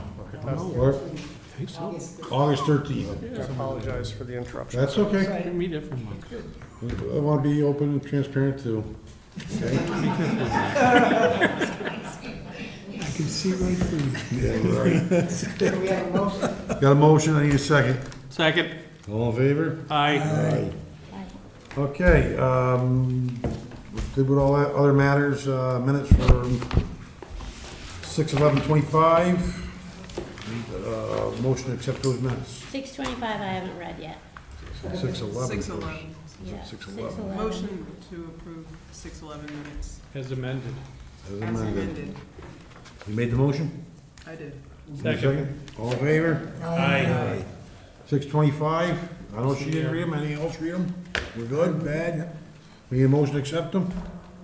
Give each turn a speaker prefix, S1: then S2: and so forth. S1: Or August thirteenth.
S2: I apologize for the interruption.
S1: That's okay.
S3: Can meet everyone.
S1: I want to be open and transparent too. Okay?
S3: I can see right through you.
S1: Yeah, right.
S4: Do we have a motion?
S1: Got a motion, I need a second.
S3: Second,
S1: All in favor?
S3: aye.
S1: Okay, um, good with all that, other matters, uh, minutes for six eleven twenty-five. Uh, motion to accept those minutes,
S5: Six twenty-five I haven't read yet.
S1: six eleven.
S6: Six eleven.
S5: Yeah,
S1: Six eleven.
S5: eleven.
S6: Motion to approve six eleven minutes
S3: As amended.
S6: as amended.
S1: You made the motion?
S6: I did.
S3: Second.
S1: All in favor?
S3: Aye.
S1: Six twenty-five, I know she didn't read them, any else read them? We're good, bad? We need a motion to accept them?